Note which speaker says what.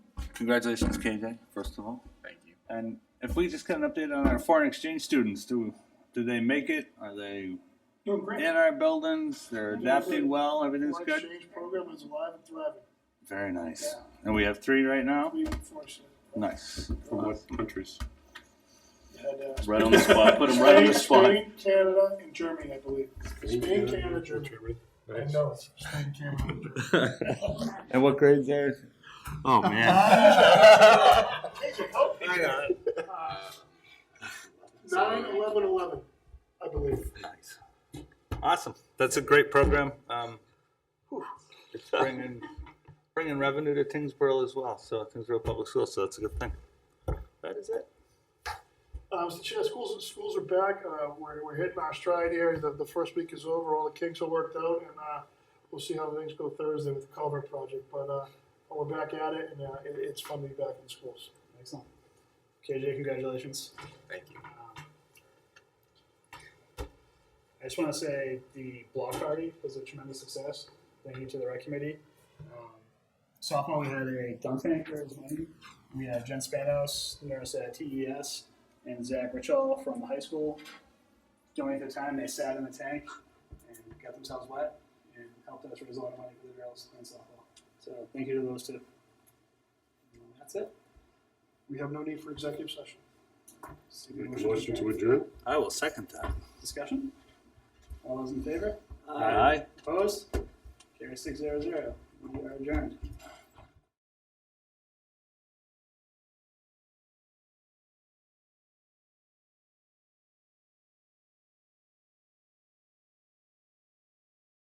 Speaker 1: Congratulations, KJ, first of all.
Speaker 2: Thank you.
Speaker 1: And if we just get an update on our foreign exchange students, do do they make it? Are they
Speaker 3: Doing great.
Speaker 1: in our buildings? They're adapting well. Everything's
Speaker 3: Foreign
Speaker 1: good.
Speaker 3: exchange program is alive and thriving.
Speaker 1: Very nice. And we have three right now.
Speaker 3: We unfortunately
Speaker 1: Nice.
Speaker 4: From what countries?
Speaker 3: had. uh,
Speaker 2: Right on the spot. Put him right on the spot.
Speaker 3: Spain, Canada, and Germany, I believe. Spain, Canada, Germany. I
Speaker 4: Nice.
Speaker 3: know. Spain, Canada, and Germany.
Speaker 1: And what grades are?
Speaker 4: Oh man.
Speaker 3: KJ, help me. Uh, Nine, eleven, eleven, I believe.
Speaker 4: Nice. Awesome. That's a great program. Um, it's bringing bringing revenue to Tingsboro as well. So Tingsboro Public Schools. So that's a good thing. That is it.
Speaker 3: Um, so yeah, schools schools are back. Uh, we're, we're hitting our stride here. The, the first week is over. All the kinks are worked out, and uh, we'll see how things go Thursday with the culvert project. But uh, we're back at it, and uh, it, it's fun to be back in schools.
Speaker 5: Excellent. KJ, congratulations.
Speaker 2: Thank you.
Speaker 5: Um, I just want to say the block party was a tremendous success. Thank you to the rec committee. Um, sophomore, we had a dunk tank there as well. We had Jen Spanos, the nurse at TES, and Zach Richall from the high school. During the time, they sat in the tank and got themselves wet and helped us raise a lot of money for the girls in softball. So thank you to those two. And that's it.
Speaker 3: We have no need for executive session.
Speaker 5: Seek a
Speaker 4: Make a
Speaker 5: motion
Speaker 4: motion
Speaker 5: adjourn.
Speaker 4: to adjourn.
Speaker 1: I will second that.
Speaker 5: Discussion? All those in favor?
Speaker 1: Aye.
Speaker 5: Opposed? Carries six zero zero. We are adjourned.